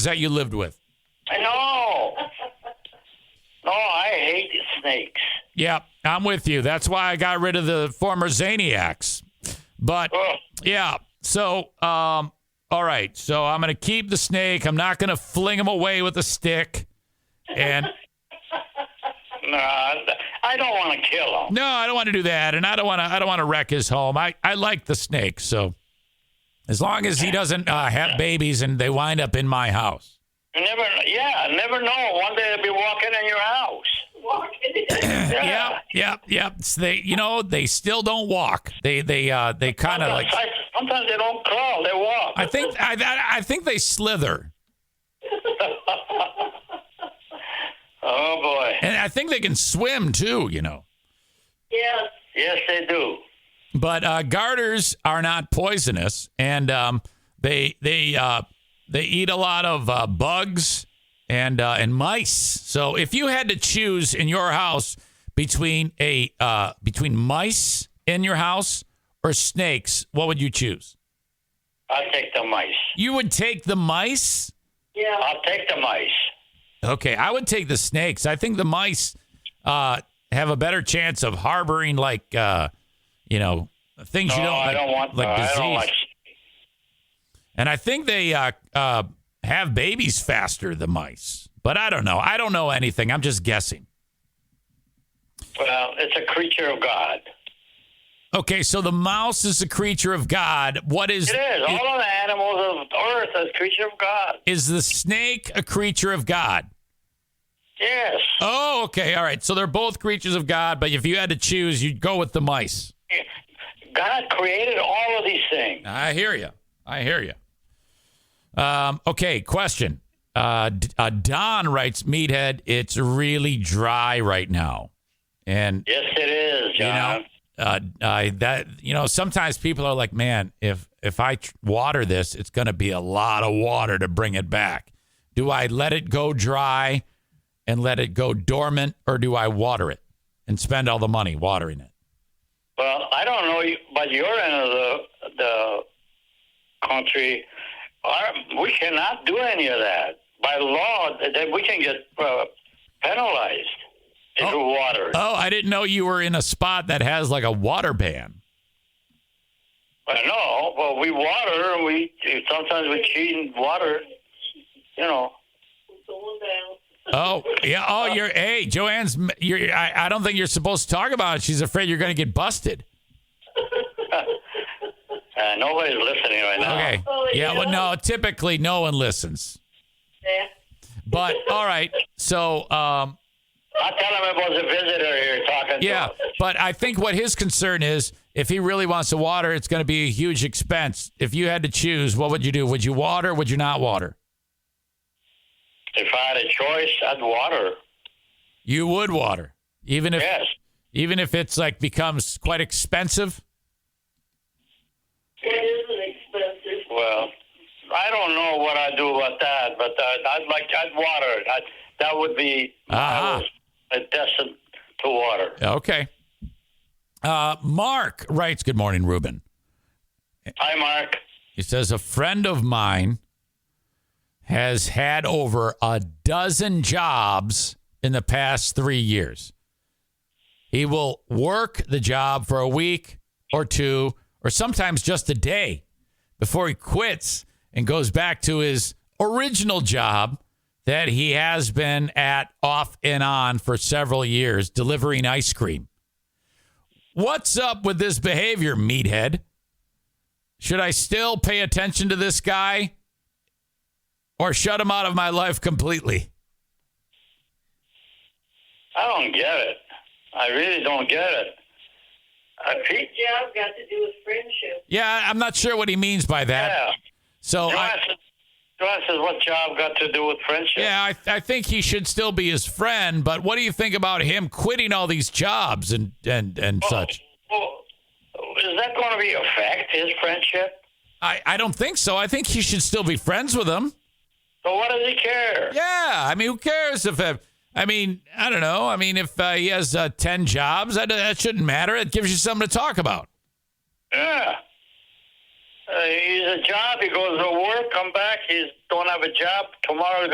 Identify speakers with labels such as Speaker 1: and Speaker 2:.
Speaker 1: Is that you lived with?
Speaker 2: No. No, Oh, I hate snakes.
Speaker 1: Yeah, I'm with you. That's why I got rid of the former Zaniacs. But
Speaker 2: Ugh.
Speaker 1: yeah, so um, all right. So I'm gonna keep the snake. I'm not gonna fling him away with a stick. And
Speaker 2: Nah, I don't want to kill them.
Speaker 1: no, I don't want to do that. And I don't want to. I don't want to wreck his home. I I like the snake. So as long as he doesn't uh, have babies and they wind up in my house.
Speaker 2: You never, yeah, never know. One day they'll be walking in your house. Walking. yeah.
Speaker 1: Yep, yep, yep. It's they, you know, they still don't walk. They, they, uh, they kind of like.
Speaker 2: Sometimes, sometimes they don't crawl; they walk.
Speaker 1: I think, I, I, I think they slither,
Speaker 2: oh boy.
Speaker 1: and I think they can swim too. You know,
Speaker 2: Yes. Yes, they do.
Speaker 1: but uh, garters are not poisonous, and um, they, they, uh, they eat a lot of uh, bugs and uh, and mice. So if you had to choose in your house between a uh, between mice in your house or snakes, what would you choose?
Speaker 2: I'll take the mice.
Speaker 1: You would take the mice.
Speaker 2: Yeah. I'll take the mice.
Speaker 1: Okay, I would take the snakes. I think the mice uh, have a better chance of harboring, like, uh, you know, things
Speaker 2: No,
Speaker 1: you don't
Speaker 2: I
Speaker 1: like,
Speaker 2: don't want.
Speaker 1: like
Speaker 2: I
Speaker 1: disease.
Speaker 2: don't want.
Speaker 1: and I think they uh, uh, have babies faster than mice. But I don't know. I don't know anything. I'm just guessing.
Speaker 2: Well, it's a creature of God.
Speaker 1: Okay, so the mouse is a creature of God. What is
Speaker 2: It is.
Speaker 1: i-
Speaker 2: All of the animals of earth are creature of God.
Speaker 1: is the snake a creature of God?
Speaker 2: Yes.
Speaker 1: Oh, okay. All right. So they're both creatures of God, but if you had to choose, you'd go with the mice.
Speaker 2: God created all of these things.
Speaker 1: I hear you. I hear you. Um, okay, question. Uh, D- uh, Don writes, Meathead, it's really dry right now. And,
Speaker 2: Yes, it is,
Speaker 1: you
Speaker 2: John.
Speaker 1: know, uh, I that, you know, sometimes people are like, man, if, if I tr- water this, it's going to be a lot of water to bring it back. Do I let it go dry and let it go dormant or do I water it and spend all the money watering it?
Speaker 2: Well, I don't know, you- but your end of the the country, our, we cannot do any of that by law. That we can get uh, penalized if we water.
Speaker 1: Oh, I didn't know you were in a spot that has like a water ban.
Speaker 2: I know, but we water. and We sometimes we cheat and water. You know.
Speaker 1: Oh yeah. Oh, you're. Hey, Joanne's. You're. I, I don't think you're supposed to talk about it. She's afraid you're going to get busted.
Speaker 2: Uh, nobody's listening right now.
Speaker 1: Okay. Yeah. Well, no. Typically, no one listens. But all right. So, um,
Speaker 2: I tell him it was a visitor here talking.
Speaker 1: yeah.
Speaker 2: To us.
Speaker 1: But I think what his concern is, if he really wants to water, it's going to be a huge expense. If you had to choose, what would you do? Would you water? Would you not water?
Speaker 2: If I had a choice, I'd water.
Speaker 1: You would water, even if
Speaker 2: Yes.
Speaker 1: even if it's like becomes quite expensive.
Speaker 2: Well, I don't know what I'd do about that, but uh, I'd like I'd water it. I'd, that would be
Speaker 1: Ah.
Speaker 2: I was destined to water.
Speaker 1: Okay. Uh, Mark writes. Good morning, Ruben.
Speaker 2: Hi, Mark.
Speaker 1: He says a friend of mine has had over a dozen jobs in the past three years. He will work the job for a week or two, or sometimes just a day before he quits and goes back to his original job that he has been at off and on for several years, delivering ice cream. What's up with this behavior, meathead? Should I still pay attention to this guy or shut him out of my life completely?
Speaker 2: I don't get it. I really don't get it. I, he,
Speaker 3: job got to do with friendship.
Speaker 1: Yeah, I'm not sure what he means by that.
Speaker 2: yeah.
Speaker 1: So,
Speaker 2: Joanne
Speaker 1: I,
Speaker 2: says, Joanne says, "What job got to do with friendship?"
Speaker 1: yeah, I, I think he should still be his friend, but what do you think about him quitting all these jobs and, and, and such?
Speaker 2: Well, is that going to be affect his friendship?
Speaker 1: I, I don't think so. I think he should still be friends with him.
Speaker 2: So what does he care?
Speaker 1: Yeah, I mean, who cares if. Uh, I mean, I don't know. I mean, if uh, he has uh, 10 jobs, that, that shouldn't matter. It gives you something to talk about.
Speaker 2: Yeah. Uh, he's a job. He goes to work, come back. He's don't have a job tomorrow.